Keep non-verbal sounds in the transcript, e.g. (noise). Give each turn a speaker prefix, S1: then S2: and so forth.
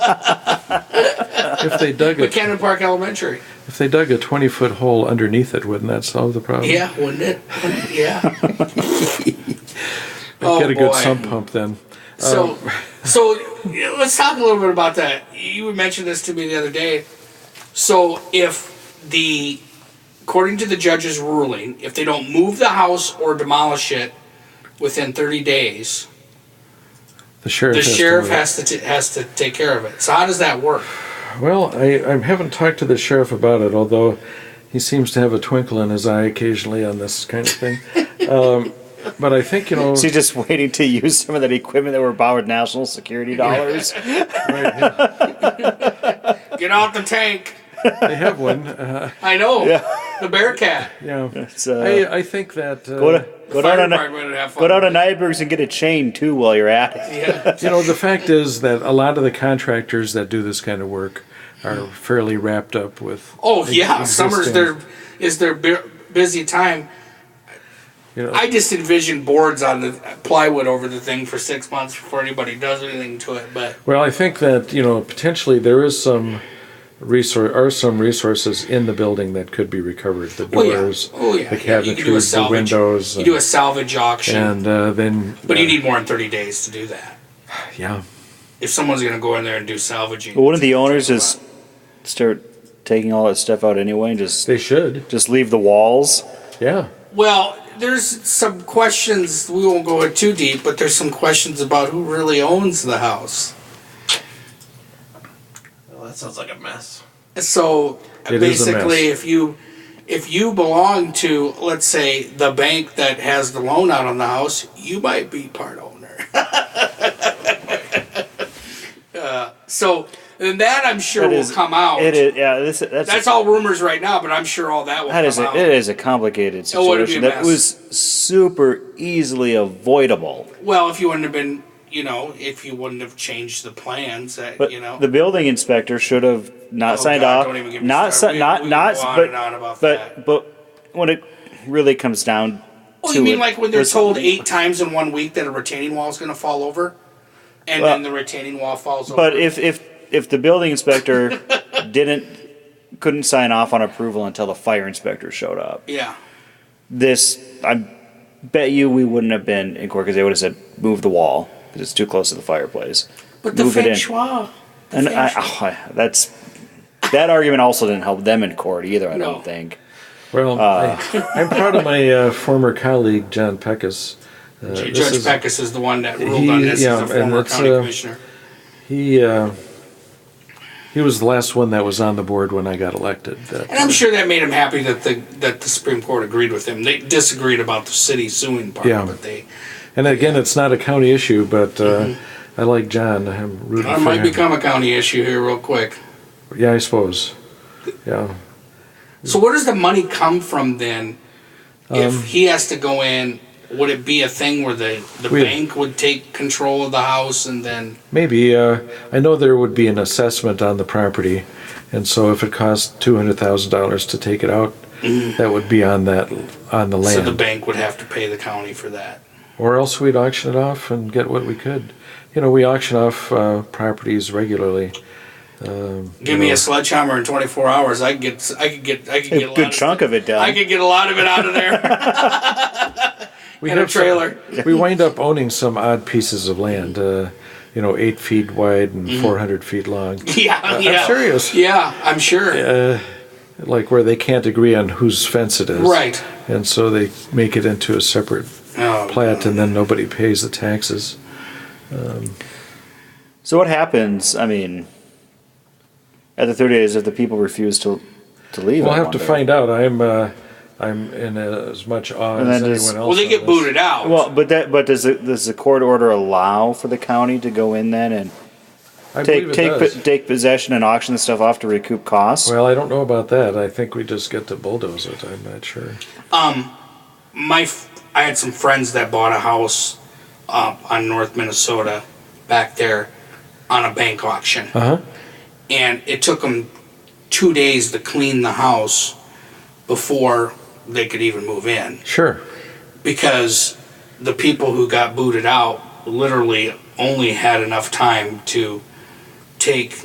S1: If they dug a,
S2: McKenna Park Elementary.
S1: if they dug a twenty foot hole underneath it, wouldn't that solve the problem?
S2: (laughs) Yeah, wouldn't it? Yeah.
S1: They'd Get a good sump pump then.
S2: Oh,
S1: Um,
S2: So, so yeah, let's talk a little bit about that. You had mentioned this to me the other day. So if the, according to the judge's ruling, if they don't move the house or demolish it within thirty days,
S1: The sheriff.
S2: the
S1: has to
S2: sheriff
S1: move.
S2: has to t- has to take care of it. So how does that work?
S1: Well, I, I haven't talked to the sheriff about it, although he seems to have a twinkle in his eye occasionally on this kind of
S2: (laughs)
S1: thing. um, but I think you know.
S3: She's just waiting (laughs) to use some of that equipment that were bought with national security dollars.
S1: right, yeah,
S2: Get out the tank.
S1: they have one. Uh,
S2: I know the Bearcat.
S1: yeah,
S3: It's,
S2: (laughs)
S3: uh,
S1: I, I think that uh,
S3: go, to, go,
S2: Fire
S3: down to,
S2: department would have fun.
S3: go down to Nyberg's and get a chain too while you're at it.
S2: Yeah.
S1: you know the fact is that a lot of the contractors that do this kind of work are fairly wrapped up with.
S2: Oh
S1: ex-
S2: yeah, summer's
S1: existing,
S2: their is their bu- busy time.
S1: You know,
S2: I just envision boards on the plywood over the thing for six months before anybody does anything to it. But
S1: Well, I think that you know potentially there is some resource are some resources in the building that could be recovered. The
S2: oh yeah,
S1: doors,
S2: oh yeah,
S1: the
S2: yeah, you could do
S1: cabinetries,
S2: a
S1: the
S2: salvage-
S1: windows,
S2: You do a salvage auction,
S1: and uh, then.
S2: but
S1: uh,
S2: you need more than thirty days to do that.
S1: Yeah,
S2: If someone's going to go in there and do salvaging,
S3: But wouldn't the owners just start taking all that stuff out anyway and just
S1: they should.
S3: just leave the walls?
S1: Yeah,
S2: Well, there's some questions. We won't go in too deep, but there's some questions about who really owns the house.
S4: Well, that sounds like a mess.
S2: So
S1: It is a mess.
S2: basically, if you if you belong to, let's say, the bank that has the loan out on the house, you might be part owner. (laughs) uh, Uh, so and that I'm sure will come out.
S3: It is. Yeah. This, that's
S2: That's all rumors right now, but I'm sure all that will
S3: that
S2: come
S3: is a,
S2: out.
S3: it is a complicated
S2: Oh, what a
S3: situation
S2: mess.
S3: that was super easily avoidable.
S2: Well, if you wouldn't have been, you know, if you wouldn't have changed the plans, that
S3: But
S2: you know,
S3: the building inspector should have not
S2: Oh,
S3: signed
S2: God,
S3: off.
S2: don't even get me
S3: not
S2: started.
S3: si-
S2: We-
S3: not
S2: we
S3: not
S2: can go on
S3: but
S2: and on about
S3: but, but when it really comes down
S2: Oh,
S3: to
S2: you mean
S3: it,
S2: like when they're
S3: was-
S2: told eight times in one week that a retaining wall is going to fall over, and
S3: Well,
S2: then the retaining wall falls over?
S3: But if if if the building inspector (laughs) didn't couldn't sign off on approval until the fire inspector showed up,
S2: yeah,
S3: this I bet you we wouldn't have been in court because they would have said move the wall because it's too close to the fireplace.
S2: but the
S3: move it
S2: feng
S3: in.
S2: shui. the
S3: And
S2: feng
S3: I,
S2: shui-
S3: (laughs) oh, I- that's that argument also didn't help them in court either. I
S2: No.
S3: don't think.
S1: well, I, I'm proud of my uh, former colleague John Peckus. Uh,
S2: J-
S1: this
S2: Judge
S1: is-
S2: Peckus is the one that ruled on
S1: He-
S2: this
S1: yeah,
S2: as a
S1: and
S2: former
S1: it's,
S2: county
S1: uh,
S2: commissioner.
S1: He uh, he was the last one that was on the board when I got elected. That-
S2: And I'm sure that made him happy that the that the Supreme Court agreed with him. They disagreed about the city suing part,
S1: Yeah.
S2: but they
S1: and again, it's not a county issue, but uh, I like John. I'm rooting for
S2: it Mm-hmm. might
S1: him.
S2: become a county issue here real quick.
S1: yeah, I suppose. Yeah.
S2: So where does the money come from then?
S1: Um,
S2: If he has to go in, would it be a thing where the, the
S1: We-
S2: bank would take control of the house and then?
S1: Maybe. Uh, I know there would be an assessment on the property, and so if it cost two hundred thousand dollars to take it out, that would be on that on the
S2: Mm-hmm. So
S1: land,
S2: the bank would have to pay the county for that.
S1: or else we'd auction it off and get what we could. You know, we auction off uh, properties regularly. Um,
S2: Give me a sledgehammer in 24 hours. I could get, I could get, I could get
S3: A
S2: a
S3: good
S2: lot
S3: chunk
S2: Of,
S3: of it down.
S2: I could get a lot of it out of there. (laughs)
S1: we
S2: and a
S1: some-
S2: trailer.
S1: we wind up owning some odd pieces of land. Uh, you know, eight feet wide and
S2: Mm-hmm.
S1: four hundred feet long.
S2: yeah, yeah.
S1: I'm serious.
S2: Yeah, I'm sure.
S1: Uh, like where they can't agree on whose fence it is.
S2: Right.
S1: And so they make it into a separate
S2: Oh,
S1: plat and then nobody pays the taxes.
S3: So what happens? I mean, at the thirty days, if the people refuse to to leave,
S1: We'll
S3: I
S1: have to
S3: wonder.
S1: find out. I'm, uh, I'm in as much awe
S3: And
S1: as
S3: then just-
S1: anyone else.
S2: well, they
S1: on
S2: get
S1: this.
S2: booted out.
S3: Well, but that but does the, does the court order allow for the county to go in then and
S1: I
S3: take
S1: believe it
S3: take
S1: does.
S3: po- take possession and auction the stuff off to recoup costs?
S1: well, I don't know about that. I think we just get to bulldoze it. I'm not sure.
S2: Um, my f- I had some friends that bought a house uh, on North Minnesota back there on a bank auction,
S1: Uh huh.
S2: and it took them two days to clean the house before they could even move in
S1: Sure.
S2: because the people who got booted out literally only had enough time to take